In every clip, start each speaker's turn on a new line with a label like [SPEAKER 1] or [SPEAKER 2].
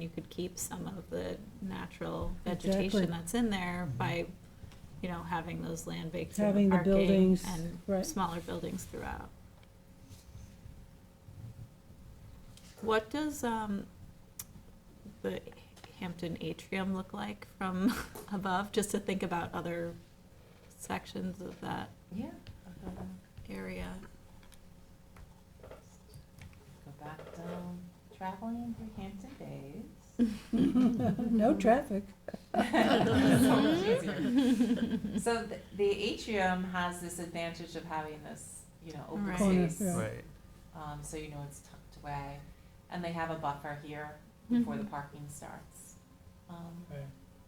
[SPEAKER 1] you could keep some of the natural
[SPEAKER 2] Exactly.
[SPEAKER 1] vegetation that's in there by, you know, having those land banks
[SPEAKER 2] Having
[SPEAKER 1] and
[SPEAKER 2] the
[SPEAKER 1] parking
[SPEAKER 2] buildings,
[SPEAKER 1] And
[SPEAKER 2] right.
[SPEAKER 1] smaller buildings throughout. What does, um, the Hampton atrium look like from above, just to think about other sections of that
[SPEAKER 3] Yeah. I'll Go down-
[SPEAKER 1] area?
[SPEAKER 3] go back down, traveling through Hampton Bays.
[SPEAKER 2] No traffic.
[SPEAKER 3] So much easier. So th- the atrium has this advantage of having this, you know, open
[SPEAKER 1] Right.
[SPEAKER 2] Corner,
[SPEAKER 3] space.
[SPEAKER 2] yeah.
[SPEAKER 4] Right.
[SPEAKER 3] Um, so you know it's tucked away. And they have a buffer here
[SPEAKER 2] Mm-hmm.
[SPEAKER 3] before the
[SPEAKER 1] Mhm.
[SPEAKER 3] parking starts. Um,
[SPEAKER 5] Right.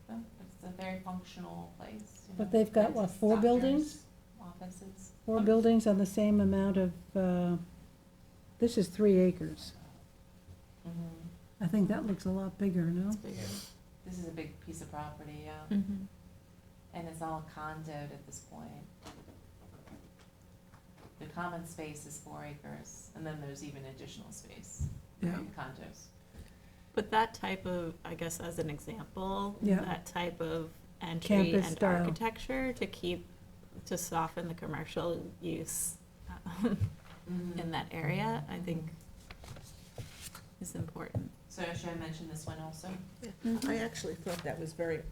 [SPEAKER 3] so it's a very functional place, you know.
[SPEAKER 2] But they've got, what,
[SPEAKER 3] dentists,
[SPEAKER 2] four
[SPEAKER 3] doctors,
[SPEAKER 2] buildings?
[SPEAKER 3] Offices.
[SPEAKER 2] Four buildings on the same amount of, uh, this is three acres.
[SPEAKER 3] Mhm.
[SPEAKER 2] I think that looks a lot bigger, no?
[SPEAKER 1] It's bigger.
[SPEAKER 3] This is a big piece of property, yeah.
[SPEAKER 1] Mhm.
[SPEAKER 3] And it's all condoed at this point. The common space is four acres, and then there's even additional space
[SPEAKER 2] Yeah.
[SPEAKER 3] in condos.
[SPEAKER 1] But that type of, I guess as an example,
[SPEAKER 2] Yeah.
[SPEAKER 1] that type of entry
[SPEAKER 2] Campus
[SPEAKER 1] and
[SPEAKER 2] style.
[SPEAKER 1] architecture to keep, to soften the commercial use um,
[SPEAKER 3] Mm-hmm.
[SPEAKER 1] in that area, I think is important.
[SPEAKER 3] So should I mention this one also?
[SPEAKER 6] I actually thought that was very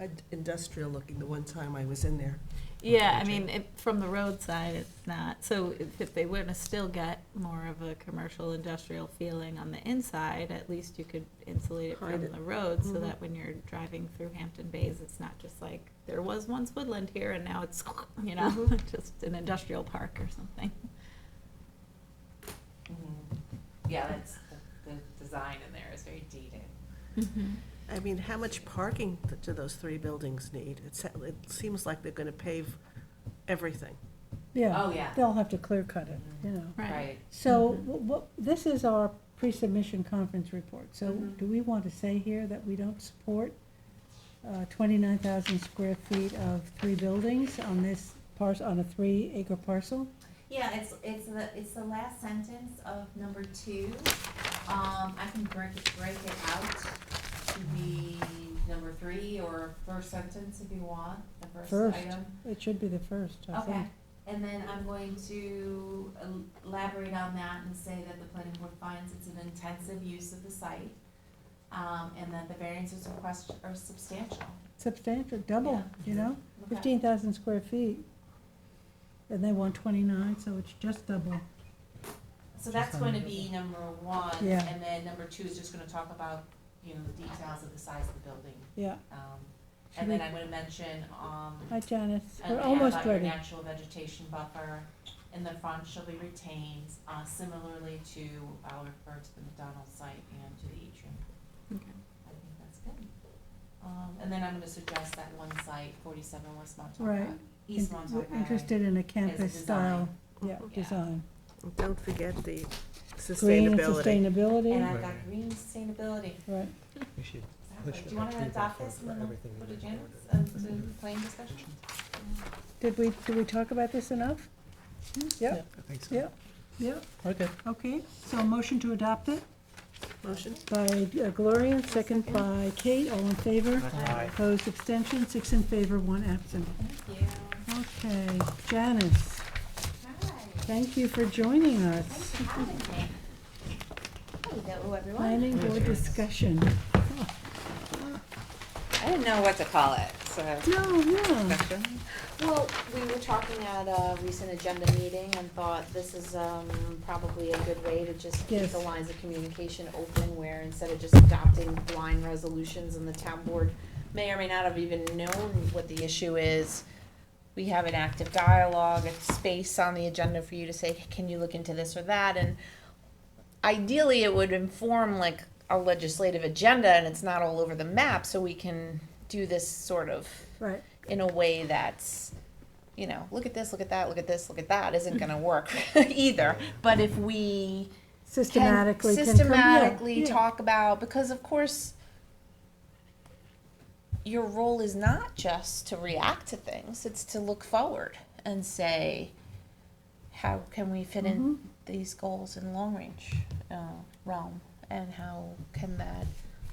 [SPEAKER 6] uh, industrial looking the one time I was in there.
[SPEAKER 1] Yeah, I mean, it, from the roadside, it's not, so if, if they were to still get more of a commercial industrial feeling on the inside, at least you could insulate it
[SPEAKER 6] Hide
[SPEAKER 1] from
[SPEAKER 6] it.
[SPEAKER 1] the road, so
[SPEAKER 6] Mhm.
[SPEAKER 1] that when you're driving through Hampton Bays, it's not just like, there was once woodland here and now it's, you know,
[SPEAKER 6] Mm-hmm.
[SPEAKER 1] just an industrial park or something.
[SPEAKER 3] Mm-hmm. Yeah, that's, the, the design in there is very dated.
[SPEAKER 6] I mean, how much parking th- do those three buildings need? It, sa- it seems like they're gonna pave everything.
[SPEAKER 2] Yeah,
[SPEAKER 3] Oh, yeah.
[SPEAKER 2] they'll have to clear cut it, you know.
[SPEAKER 1] Right.
[SPEAKER 3] Right.
[SPEAKER 2] So,
[SPEAKER 1] Mhm.
[SPEAKER 2] wh- what, this is our pre-submission conference report, so
[SPEAKER 3] Mhm.
[SPEAKER 2] do we want to say here that we don't support uh, twenty-nine thousand square feet of three buildings on this parcel, on a three-acre parcel?
[SPEAKER 3] Yeah, it's, it's the, it's the last sentence of number two. Um, I can break it, break it out to be number three or first sentence if you want, the first
[SPEAKER 2] First.
[SPEAKER 3] item.
[SPEAKER 2] It should be the first, I
[SPEAKER 3] Okay,
[SPEAKER 2] think.
[SPEAKER 3] and then I'm going to el- elaborate on that and say that the planning board finds it's an intensive use of the site. Um, and that the variances requested are substantial.
[SPEAKER 2] Substantial, double, you know,
[SPEAKER 3] Okay.
[SPEAKER 2] fifteen thousand square feet. And they want twenty-nine, so it's just double.
[SPEAKER 3] So that's going to be number one,
[SPEAKER 2] Yeah.
[SPEAKER 3] and then number two is just gonna talk about, you know, the details of the size of the building.
[SPEAKER 2] Yeah,
[SPEAKER 3] Um,
[SPEAKER 2] Should
[SPEAKER 3] and then
[SPEAKER 2] we-
[SPEAKER 3] I'm gonna mention, um,
[SPEAKER 2] hi Janice,
[SPEAKER 3] and
[SPEAKER 2] we're
[SPEAKER 3] add
[SPEAKER 2] almost
[SPEAKER 3] about your
[SPEAKER 2] ready.
[SPEAKER 3] natural vegetation buffer in the front shall be retained, uh, similarly to, I'll refer to the McDonald's site and to the atrium.
[SPEAKER 1] Okay.
[SPEAKER 3] I think that's good. Um, and then I'm gonna suggest that one site, forty-seven West Montauk
[SPEAKER 2] Right.
[SPEAKER 3] Ave- East Montauk
[SPEAKER 2] We're
[SPEAKER 3] Ave.
[SPEAKER 2] interested in a campus style,
[SPEAKER 3] design.
[SPEAKER 2] yeah,
[SPEAKER 3] Yeah.
[SPEAKER 2] design.
[SPEAKER 6] And Don't forget the
[SPEAKER 2] Green and
[SPEAKER 6] sustainability.
[SPEAKER 3] And
[SPEAKER 2] sustainability,
[SPEAKER 3] I've got
[SPEAKER 4] Right.
[SPEAKER 3] green sustainability.
[SPEAKER 2] right.
[SPEAKER 4] We should
[SPEAKER 3] Exactly.
[SPEAKER 4] Push
[SPEAKER 3] Do you wanna
[SPEAKER 4] approve
[SPEAKER 3] adopt
[SPEAKER 4] that
[SPEAKER 3] this
[SPEAKER 4] for
[SPEAKER 3] and then
[SPEAKER 4] everything
[SPEAKER 3] put
[SPEAKER 4] we
[SPEAKER 3] a
[SPEAKER 4] just
[SPEAKER 3] Janice,
[SPEAKER 4] ordered.
[SPEAKER 3] and to plain discussion?
[SPEAKER 2] Did we, did we talk about this enough? Yep,
[SPEAKER 4] Hmm? I think so.
[SPEAKER 2] yep, yep.
[SPEAKER 4] Okay.
[SPEAKER 2] Okay, so a motion to adopt it
[SPEAKER 6] Motion?
[SPEAKER 2] by uh, Gloria, second by Kate, all in favor. Opposed, abstention, six in favor, one absent.
[SPEAKER 3] Thank you.
[SPEAKER 2] Okay, Janice,
[SPEAKER 3] Hi.
[SPEAKER 2] thank you for joining us.
[SPEAKER 3] for having me. Hello, everyone.
[SPEAKER 2] Planning board discussion.
[SPEAKER 3] I didn't know what to call it, so.
[SPEAKER 2] No, yeah,
[SPEAKER 7] Well, we were talking at a recent agenda meeting and thought this is, um, probably a good way to just keep
[SPEAKER 2] Yes.
[SPEAKER 7] the lines of communication open where instead of just adopting blind resolutions and the town board may or may not have even known what the issue is, we have an active dialogue, a space on the agenda for you to say, can you look into this or that? And ideally, it would inform like a legislative agenda and it's not all over the map, so we can do this sort of
[SPEAKER 2] right,
[SPEAKER 7] in a way that's you know look at this look at that look at this look at that isn't going to
[SPEAKER 2] Mm-hmm.
[SPEAKER 7] work either but if we can
[SPEAKER 2] systematically. can come- yeah,
[SPEAKER 7] systematically
[SPEAKER 2] yeah.
[SPEAKER 7] talk about because of course your role is not just to react to things it's to look forward and say how can we fit
[SPEAKER 2] Mm-hmm.
[SPEAKER 7] in these goals in long range uh, realm and how can that